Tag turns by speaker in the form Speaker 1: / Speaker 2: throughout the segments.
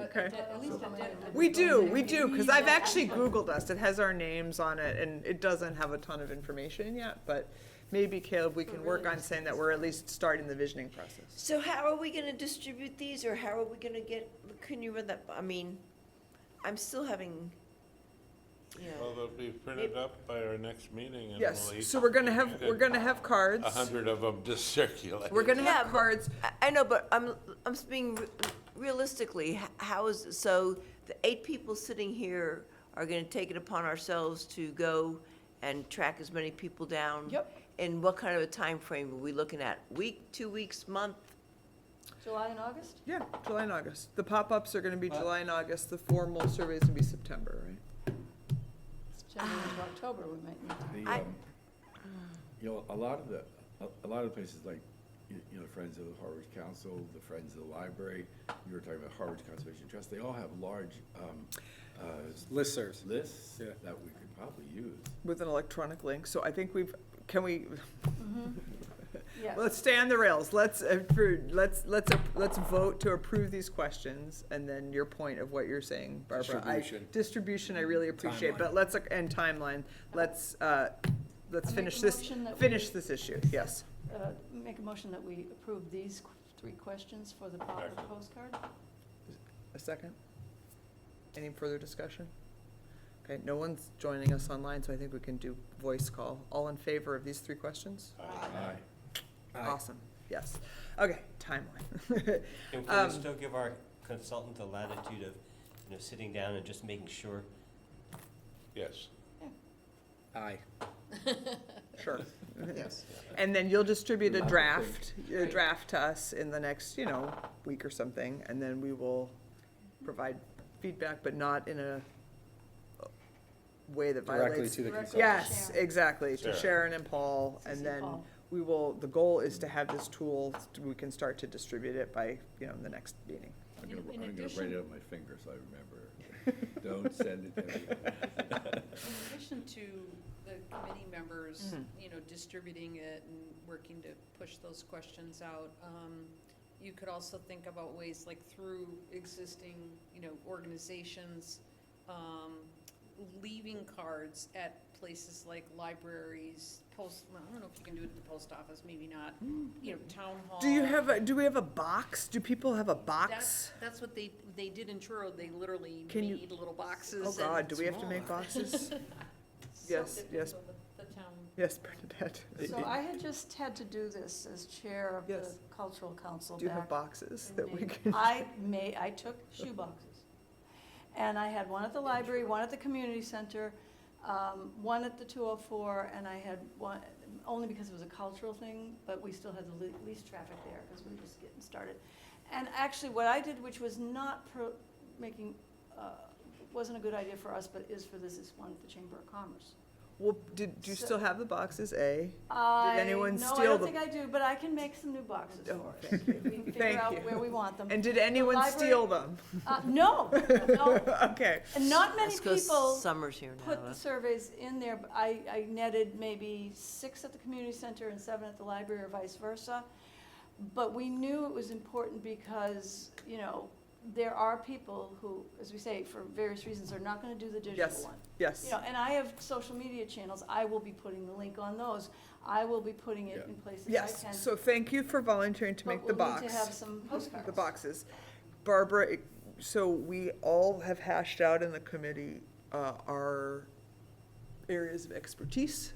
Speaker 1: Okay.
Speaker 2: At least it did.
Speaker 1: We do, we do, because I've actually Googled us. It has our names on it, and it doesn't have a ton of information yet, but maybe Caleb, we can work on saying that we're at least starting the visioning process.
Speaker 3: So how are we gonna distribute these, or how are we gonna get, can you run that, I mean, I'm still having, you
Speaker 4: Well,
Speaker 3: know,
Speaker 4: they'll be printed up by our next meeting and
Speaker 1: Yes,
Speaker 4: we'll each.
Speaker 1: so we're gonna have,
Speaker 4: get
Speaker 1: we're gonna have cards.
Speaker 4: A hundred of them to circulate.
Speaker 1: We're gonna
Speaker 3: Yeah,
Speaker 1: have
Speaker 3: but-
Speaker 1: cards.
Speaker 3: I, I know, but I'm, I'm being re- realistically, h- how is, so the eight people sitting here are gonna take it upon ourselves to go and track as many people down?
Speaker 1: Yep.
Speaker 3: And what kind of a time frame are we looking at? Week, two weeks, month?
Speaker 2: July and August?
Speaker 1: Yeah, July and August. The pop-ups are gonna be July and August. The formal survey is gonna be September, right?
Speaker 2: It's January
Speaker 1: Ah.
Speaker 2: to October, we might need.
Speaker 5: The,
Speaker 3: I-
Speaker 5: um, you know, a lot of the, a, a lot of places like, you, you know, Friends of the Harvard Council, the Friends of the Library, you were talking about Harvard Conservation Trust, they all have large, um, uh,
Speaker 6: Listservs.
Speaker 5: lists
Speaker 6: Yeah.
Speaker 5: that we could probably use.
Speaker 1: With an electronic link, so I think we've, can we,
Speaker 2: Mm-hmm. Yes.
Speaker 1: let's stay on the rails. Let's approve, let's, let's, ap- let's vote to approve these questions, and then your point of what you're saying, Barbara. I-
Speaker 6: Distribution.
Speaker 1: Distribution, I really appreciate, but
Speaker 6: Timeline.
Speaker 1: let's, uh, and timeline, let's, uh, let's
Speaker 2: I'll make
Speaker 1: finish
Speaker 2: a
Speaker 1: this,
Speaker 2: motion that we-
Speaker 1: finish this issue, yes.
Speaker 2: Uh, Make a motion that we approve these qu- three questions for the proper postcard?
Speaker 1: A second? Any further discussion? Okay, no one's joining us online, so I think we can do voice call. All in favor of these three questions?
Speaker 5: Aye.
Speaker 6: Aye.
Speaker 1: Awesome, yes. Okay, timeline.
Speaker 7: And can
Speaker 1: Um,
Speaker 7: we still give our consultant the latitude of, you know, sitting down and just making sure?
Speaker 4: Yes.
Speaker 6: Aye.
Speaker 1: Sure. And then you'll distribute a
Speaker 5: Love it.
Speaker 1: draft, a draft to us in the next, you know, week or something, and then we will provide feedback, but not in a way that
Speaker 6: Directly
Speaker 1: violates.
Speaker 6: to the
Speaker 2: Directly.
Speaker 6: consultant.
Speaker 1: Yes,
Speaker 2: Sharon.
Speaker 1: exactly, to
Speaker 4: Sharon.
Speaker 1: Sharon and Paul,
Speaker 2: CC
Speaker 1: and then
Speaker 2: Paul.
Speaker 1: we will, the goal is to have this tool, we can start to distribute it by, you know, the next meeting.
Speaker 5: I'm
Speaker 2: In-
Speaker 5: gonna,
Speaker 2: in
Speaker 5: I'm gonna
Speaker 2: addition-
Speaker 5: write it on my finger so I remember. Don't send it to me.
Speaker 8: In addition to the committee members,
Speaker 1: Mm-hmm.
Speaker 8: you know, distributing it and working to push those questions out, um, you could also think about ways like through existing, you know, organizations, um, leaving cards at places like libraries, post, well, I don't know if you can do it at the post office, maybe not, you know, town hall.
Speaker 1: Mm-hmm. Do you have, a do we have a box? Do people have a box?
Speaker 8: That's, that's what they, they did in Truro, they literally
Speaker 1: Can you-
Speaker 8: made little boxes
Speaker 1: Oh,
Speaker 8: and
Speaker 1: God, do we have to make boxes? yes,
Speaker 8: something
Speaker 1: yes.
Speaker 8: so that The town
Speaker 1: Yes, Bernadette.
Speaker 2: So I had just had to do this as chair of the
Speaker 1: Yes.
Speaker 2: cultural council
Speaker 1: Do you have
Speaker 2: back
Speaker 1: boxes that we
Speaker 2: Indeed.
Speaker 1: can?
Speaker 2: I made, I took shoe boxes. And I had one at the library, one at the community center, um, one at the 204, and I had one, only because it was a cultural thing, but we still had the le- least traffic there because we were just getting started. And actually, what I did, which was not pro- making, uh, wasn't a good idea for us, but is for this, is one at the Chamber of Commerce.
Speaker 1: Well, did, do you
Speaker 2: So-
Speaker 1: still have the boxes, A?
Speaker 2: I-
Speaker 1: anyone
Speaker 2: No, I
Speaker 1: steal
Speaker 2: don't
Speaker 1: the-
Speaker 2: think I do, but I can make some new boxes
Speaker 1: Oh,
Speaker 2: for us.
Speaker 1: thank
Speaker 2: We can
Speaker 1: Thank
Speaker 2: figure
Speaker 1: you.
Speaker 2: out where we want them.
Speaker 1: And did anyone
Speaker 2: Um, library-
Speaker 1: steal them?
Speaker 2: Uh, No, no,
Speaker 1: Okay.
Speaker 2: And not many
Speaker 3: Let's go
Speaker 2: people
Speaker 3: Summer's here now.
Speaker 2: put
Speaker 3: huh?
Speaker 2: the surveys in there, but I, I netted maybe six at the community center and seven at the library or vice versa. But we knew it was important because, you know, there are people who, as we say, for various reasons, are not gonna do the digital
Speaker 1: Yes.
Speaker 2: one. You
Speaker 1: Yes.
Speaker 2: know, and I have social media channels, I will be putting the link on those, I will be putting it
Speaker 5: Yeah.
Speaker 2: in places I can.
Speaker 1: Yes. So thank you for volunteering to
Speaker 2: but
Speaker 1: make the
Speaker 2: we'll need
Speaker 1: box.
Speaker 2: to have some postcards.
Speaker 1: The boxes. Barbara, it- so we all have hashed out in the committee, uh, our areas of expertise,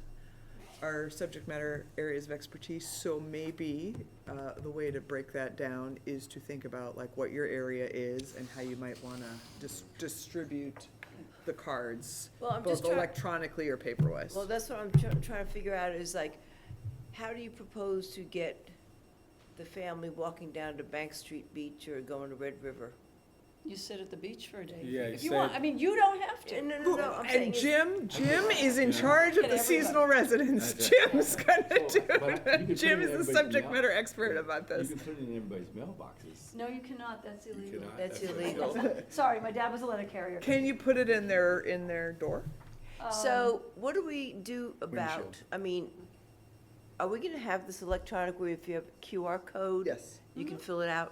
Speaker 1: our subject matter areas of expertise, so maybe, uh, the way to break that down is to think about like what your area is and how you might wanna dis- distribute the cards,
Speaker 3: Well, I'm
Speaker 1: both
Speaker 3: just trying.
Speaker 1: electronically or paperwise.
Speaker 3: Well, that's what I'm try- trying to figure out is like, how do you propose to get the family walking down to Bank Street Beach or going to Red River?
Speaker 2: You sit at the beach for a day,
Speaker 6: Yeah,
Speaker 2: if
Speaker 6: you
Speaker 2: you want,
Speaker 6: said-
Speaker 2: I mean, you don't have to.
Speaker 3: No, no, no,
Speaker 1: Who-
Speaker 3: no, I'm saying
Speaker 1: And
Speaker 3: is-
Speaker 1: Jim, Jim is in charge of
Speaker 2: Get
Speaker 1: the
Speaker 2: everybody.
Speaker 1: seasonal residents.
Speaker 5: Okay.
Speaker 1: Jim's gonna do
Speaker 5: But you can put
Speaker 1: it. Jim
Speaker 5: it in
Speaker 1: is the
Speaker 5: everybody's
Speaker 1: subject
Speaker 5: mouth.
Speaker 1: matter expert about
Speaker 5: You
Speaker 1: this.
Speaker 5: can put it in everybody's mailboxes.
Speaker 2: No, you cannot, that's
Speaker 5: You
Speaker 2: illegal.
Speaker 5: cannot.
Speaker 3: That's
Speaker 5: what-
Speaker 3: illegal.
Speaker 2: Sorry, my dad was a letter carrier. Um,
Speaker 1: Can you put it in their, in their door?
Speaker 3: So what do we do about,
Speaker 6: Windshield.
Speaker 3: I mean, are we gonna have this electronic where if you have QR code?
Speaker 1: Yes.
Speaker 3: You can fill it out?